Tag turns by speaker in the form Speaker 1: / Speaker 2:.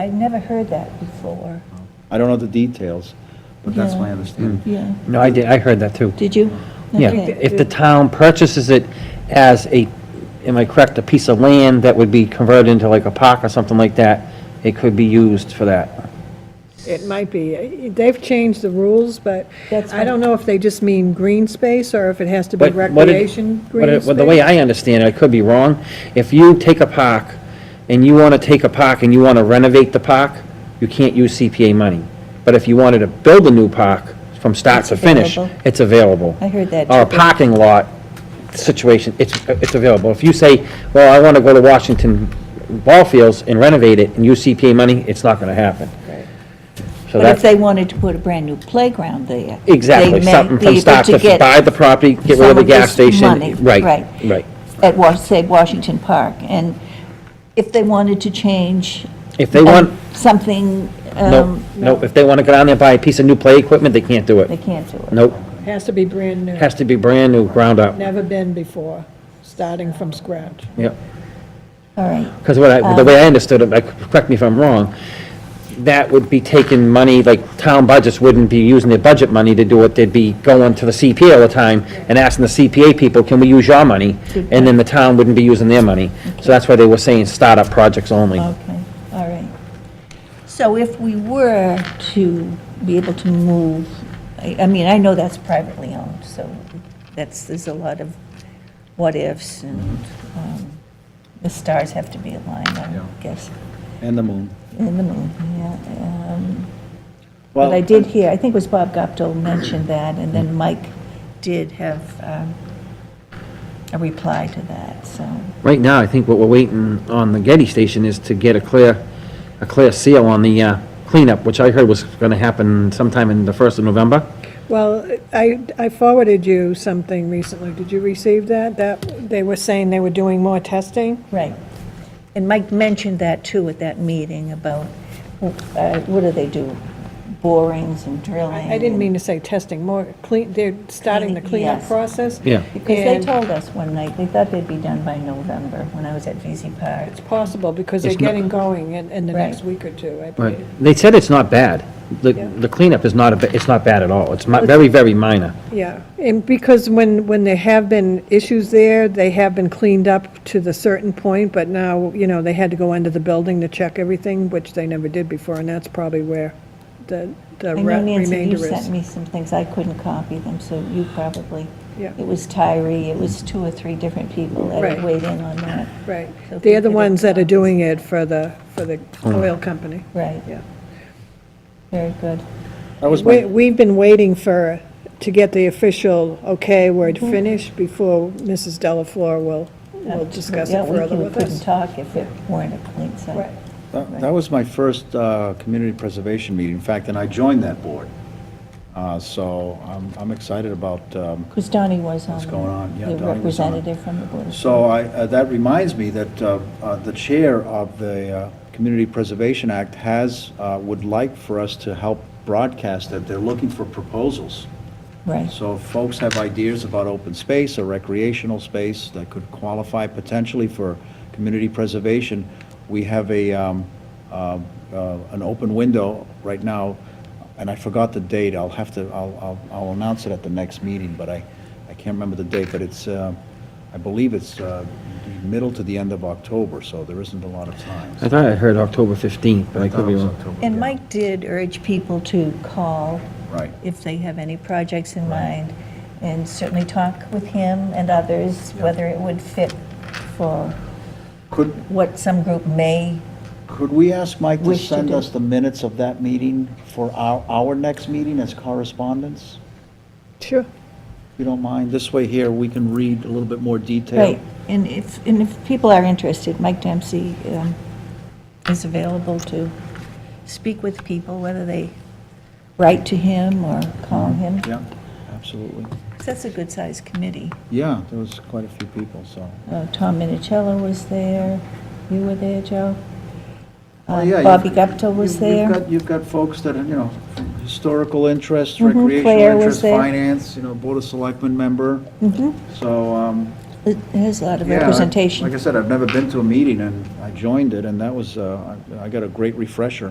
Speaker 1: I'd never heard that before.
Speaker 2: I don't know the details, but that's my
Speaker 1: Yeah.
Speaker 2: understanding.
Speaker 1: Yeah,
Speaker 3: No, I did, I heard that too.
Speaker 1: did you?
Speaker 3: Yeah,
Speaker 1: Okay.
Speaker 3: if the town purchases it as a, am I correct, a piece of land that would be converted into like a park or something like that, it could be used for that.
Speaker 4: It might be. They've changed the rules, but
Speaker 1: That's
Speaker 4: I don't know if they just mean green space or if it has to be
Speaker 3: But what it-
Speaker 4: recreation
Speaker 3: what
Speaker 4: green
Speaker 3: it-
Speaker 4: space.
Speaker 3: uh, well, The way I understand it, I could be wrong, if you take a park, and you want to take a park and you want to renovate the park, you can't use CPA money. But if you wanted to build a new park from start to finish,
Speaker 1: available.
Speaker 3: it's available.
Speaker 1: I heard that
Speaker 3: Or a
Speaker 1: too.
Speaker 3: parking lot situation, it's, it's available. If you say, well, I want to go to Washington ball fields and renovate it and use CPA money, it's not going to happen.
Speaker 1: But
Speaker 3: So
Speaker 1: if
Speaker 3: that's,
Speaker 1: they wanted to put a brand-new playground there. they
Speaker 3: exactly,
Speaker 1: may
Speaker 3: something
Speaker 1: be
Speaker 3: from
Speaker 1: able
Speaker 3: start to,
Speaker 1: get
Speaker 3: buy the property, get
Speaker 1: some
Speaker 3: rid of the
Speaker 1: of
Speaker 3: gas
Speaker 1: this
Speaker 3: station.
Speaker 1: money, right.
Speaker 3: Right, right.
Speaker 1: At, Wash- say, Washington Park, and if they wanted to change.
Speaker 3: If they
Speaker 1: um,
Speaker 3: want,
Speaker 1: Something,
Speaker 3: no,
Speaker 1: um,
Speaker 3: no, if they want to go down there and buy a piece of new play equipment, they can't do
Speaker 1: they
Speaker 3: it.
Speaker 1: can't do it.
Speaker 3: Nope,
Speaker 4: Has to be brand new,
Speaker 3: has to be brand new, ground up,
Speaker 4: never been before, starting from scratch.
Speaker 3: yep.
Speaker 1: All right,
Speaker 3: Because what I, the way I understood it, like, correct me if I'm wrong, that would be taking money, like, town budgets wouldn't be using their budget money to do it, they'd be going to the CPA all the time and asking the CPA people, can we use your money? And then the town wouldn't be using their money. So that's why they were saying startup projects only.
Speaker 1: okay, all right. So if we were to be able to move, I, I mean, I know that's privately owned, so that's, there's a lot of what-ifs, and um, the stars have to be aligned, I
Speaker 2: Yeah.
Speaker 1: guess,
Speaker 2: And the moon.
Speaker 1: in the moon, yeah. um,
Speaker 2: Well,
Speaker 1: But
Speaker 2: Mm-hmm.
Speaker 1: I did hear, I think it was Bob Gopdol mentioned that, and then Mike did have um, a reply to that, so,
Speaker 3: Right now, I think what we're waiting on the Getty Station is to get a clear, a clear seal on the uh, cleanup, which I heard was gonna happen sometime in the first of November.
Speaker 4: Well, I, I forwarded you something recently. Did you receive that? That, they were saying they were doing more testing?
Speaker 1: right. And Mike mentioned that too at that meeting about, uh, what do they do, borings and drilling?
Speaker 4: I didn't mean to say testing, more clean, they're starting the cleanup
Speaker 1: Yes.
Speaker 4: process.
Speaker 3: Yeah.
Speaker 1: Because they
Speaker 4: and-
Speaker 1: told us one night, they thought they'd be done by November, when I was at VZ Park.
Speaker 4: It's possible, because they're
Speaker 3: It's not-
Speaker 4: getting going in, in the
Speaker 1: Right.
Speaker 4: next week or two, I
Speaker 3: Right.
Speaker 4: believe.
Speaker 3: They said it's not bad. The
Speaker 4: Yeah.
Speaker 3: the cleanup is not, a ba- it's not bad at all. It's mi- very, very minor.
Speaker 4: Yeah, and because when, when there have been issues there, they have been cleaned up to the certain point, but now, you know, they had to go under the building to check everything, which they never did before, and that's probably where the, the
Speaker 1: I know
Speaker 4: re-
Speaker 1: Nancy, you
Speaker 4: remainder
Speaker 1: sent
Speaker 4: is.
Speaker 1: me some things, I couldn't copy them, so you probably.
Speaker 4: Yeah.
Speaker 1: It was Tyree, it was two or three different people that had
Speaker 4: Right.
Speaker 1: weighed in on that.
Speaker 4: Right,
Speaker 1: So if
Speaker 4: they're
Speaker 1: you
Speaker 4: the
Speaker 1: could
Speaker 4: ones that are
Speaker 1: acknowledge-
Speaker 4: doing it for the, for the oil company,
Speaker 1: Right,
Speaker 4: yeah.
Speaker 1: very good.
Speaker 2: That was
Speaker 4: We,
Speaker 2: my,
Speaker 4: we've been waiting for, to get the official, okay, word
Speaker 1: Mm-hmm.
Speaker 4: finished before Mrs. Delafleur will, will discuss
Speaker 1: Yeah,
Speaker 4: it
Speaker 1: we
Speaker 4: further
Speaker 1: could-
Speaker 4: with
Speaker 1: couldn't
Speaker 4: us.
Speaker 1: talk if it weren't a clean site.
Speaker 4: Right.
Speaker 2: that that was my first uh, community preservation meeting, in fact, and I joined that board. Uh, So I'm, I'm excited about, um,
Speaker 1: Because Donnie was on.
Speaker 2: What's going on? Yeah,
Speaker 1: The
Speaker 2: Donnie was on it.
Speaker 1: representative from the Board of
Speaker 2: so I, uh, that reminds me that uh, uh, the chair of the uh, Community Preservation Act has, uh, would like for us to help broadcast that they're looking for proposals.
Speaker 1: Right,
Speaker 2: So if folks have ideas about open space or recreational space that could qualify potentially for community preservation, we have a, um, uh, uh, an open window right now, and I forgot the date, I'll have to, I'll, I'll, I'll announce it at the next meeting, but I, I can't remember the date, but it's, uh, I believe it's uh, the middle to the end of October, so there isn't a lot of time.
Speaker 3: I thought I heard October 15th, but I
Speaker 2: thought
Speaker 3: could
Speaker 2: it
Speaker 3: be
Speaker 2: was
Speaker 3: wrong.
Speaker 2: October,
Speaker 1: and
Speaker 2: yeah.
Speaker 1: Mike did urge people to call
Speaker 2: Right.
Speaker 1: if they have any projects in mind, and certainly talk with him and others, whether it would fit for
Speaker 2: Could,
Speaker 1: what some group may,
Speaker 2: Could we ask Mike to
Speaker 1: Wish to
Speaker 2: send
Speaker 1: do.
Speaker 2: us the minutes of that meeting for our, our next meeting as correspondence?
Speaker 4: Sure.
Speaker 2: If you don't mind, this way here, we can read a little bit more detail.
Speaker 1: right, and if, and if people are interested, Mike Dempsey um, is available to speak with people, whether they write to him or call him.
Speaker 2: Yeah, absolutely.
Speaker 1: 'Cause That's a good-sized committee.
Speaker 2: Yeah, there was quite a few people, so.
Speaker 1: Uh, Tom Minicello was there, you were there, Joe?
Speaker 2: Oh,
Speaker 1: Uh,
Speaker 2: yeah, you've-
Speaker 1: Bobby Gupta was
Speaker 2: you've- you've
Speaker 1: there.
Speaker 2: got- You've got folks that, are, you know, historical interest,
Speaker 1: Mhm,
Speaker 2: recreational
Speaker 1: Claire was
Speaker 2: interest,
Speaker 1: there.
Speaker 2: finance, you know, Board of Selectmen member.
Speaker 1: Mhm.
Speaker 2: So, um,
Speaker 1: It has a lot of
Speaker 2: Yeah, I-
Speaker 1: representation.
Speaker 2: Like I said, I've never been to a meeting, and I joined it, and that was, uh, I I got a great refresher.